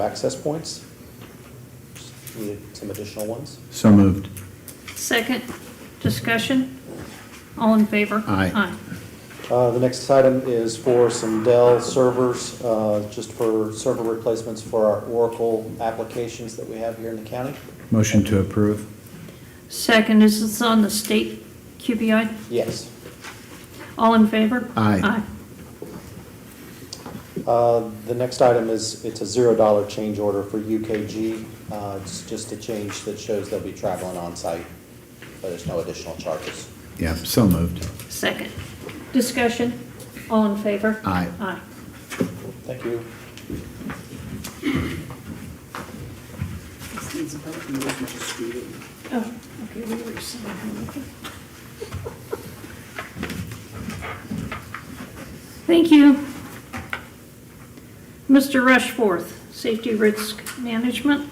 access points. Just Needed some additional ones. So moved. Second, discussion? All in favor? Aye. Uh, The next item is for some Dell servers, uh, just for server replacements for our Oracle applications that we have here in the county. Motion to approve. Second, is this on the state QBI? Yes. All in favor? Aye. Uh, The next item is, it's a zero-dollar change order for UKG. Uh, It's just a change that shows they'll be traveling on-site, but there's no additional charges. Yeah, so moved. Second, discussion? All in favor? Aye. Aye. Thank you. This needs a vote, and we can just read it. Oh, okay, we were signing. okay. Thank you. Mr. Rushforth, Safety Risk Management.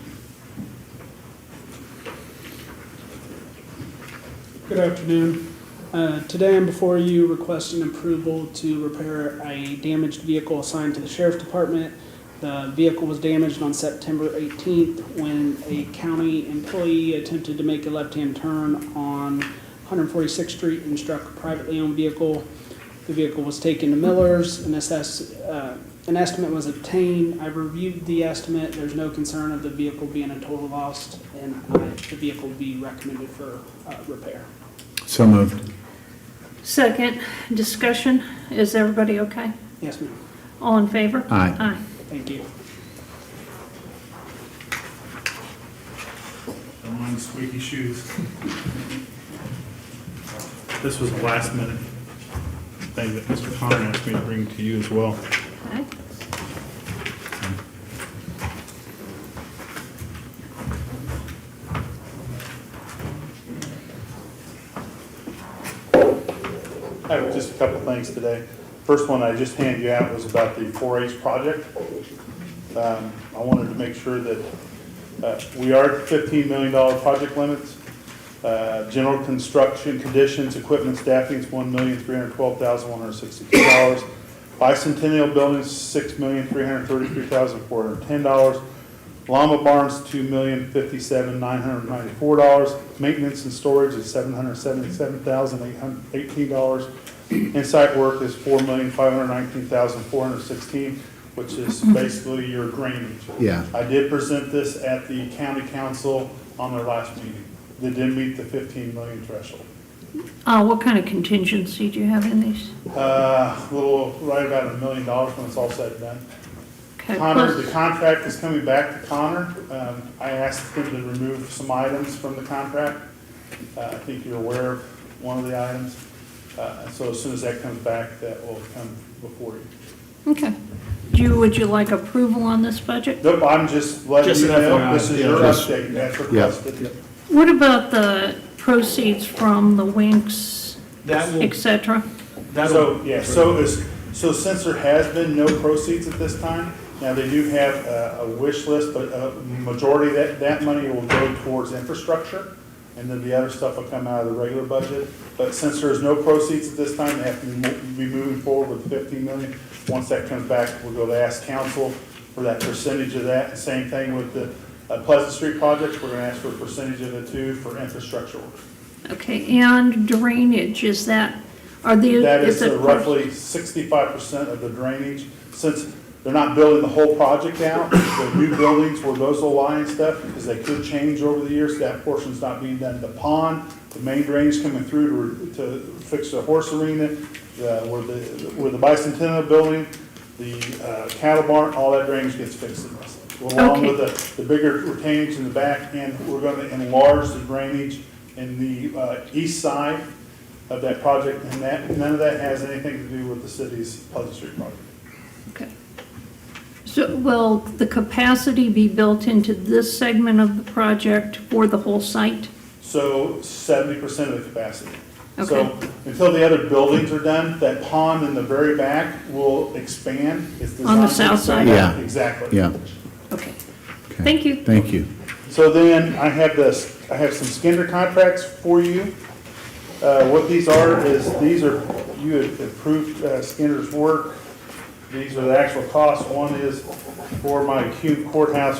Good afternoon. Uh, Today I'm before you requesting approval to repair a damaged vehicle assigned to the sheriff's department. The vehicle was damaged on September 18th when a county employee attempted to make a left-hand turn on 146th Street and struck a privately owned vehicle. The vehicle was taken to Miller's, an assess, uh, an estimate was obtained. I reviewed the estimate, there's no concern of the vehicle being a total loss, and I- the vehicle be recommended for uh, repair. So moved. Second, discussion? Is everybody okay? Yes, ma'am, All in favor? Aye. Aye. thank you. Don't mind squeaky shoes. This was a last minute thing that Mr. Connor asked me to bring to you as well. Okay. I have just a couple things today. First one I just handed you out was about the 4-H project. Um, I wanted to make sure that uh, we are at $15 million project limits. Uh, General construction conditions, equipment staffing is $1,312,162. Bicentennial buildings, $6,333,410. Llama barns, $2,057,994. Maintenance and storage is $777,818. Inside work is $4,519,416, which is basically your drainage. Yeah. I did present this at the county council on their last meeting. They didn't meet the 15 million threshold. Uh, what kind of contingency do you have in these? Uh, a little, right about a million dollars when it's all said and done. Okay, Connor, plus- the contract is coming back to Connor. Um, I asked him to remove some items from the contract. Uh, I think you're aware of one of the items. Uh, so as soon as that comes back, that will come before you. Okay. Do you, would you like approval on this budget? Nope, I'm just letting Just you an know, FYI, this is yeah. your Just- update, that's requested. What about the proceeds from the Winks, That will- et cetera? So, yeah, so is, so since there has been no proceeds at this time, now they do have a, a wish list, but a majority of that, that money will go towards infrastructure, and then the other stuff will come out of the regular budget. But since there's no proceeds at this time, they have to mo- be moving forward with fifteen million. Once that comes back, we'll go to ask council for that percentage of that. Same thing with the uh, Pleasant Street projects, we're gonna ask for a percentage of the two for infrastructure. work. Okay, and drainage, is that, are the? That is it- roughly sixty-five percent of the drainage, since they're not building the whole project out, the new buildings where those will lie and stuff, because they could change over the years, that portion's not being done. The pond, the main drainage coming through to, to fix the horse arena, the, where the, where the bicentennial building, the uh, cattle barn, all that drainage gets fixed in this. Along Okay. with the, the bigger retainage in the back, and we're gonna enlarge the drainage in the, uh, east side of that project, and that, none of that has anything to do with the city's Pleasant Street project. Okay. So will the capacity be built into this segment of the project for the whole site? So seventy percent of the capacity. So Okay. until the other buildings are done, that pond in the very back will expand. It's On the designed to south side? expand. Yeah. Exactly. Yeah. Okay, Okay. Thank you. Thank you. So then I have this, I have some Skinner contracts for you. Uh, What these are is, these are, you had approved uh, Skinner's work These are the actual costs. One is for my cube courthouse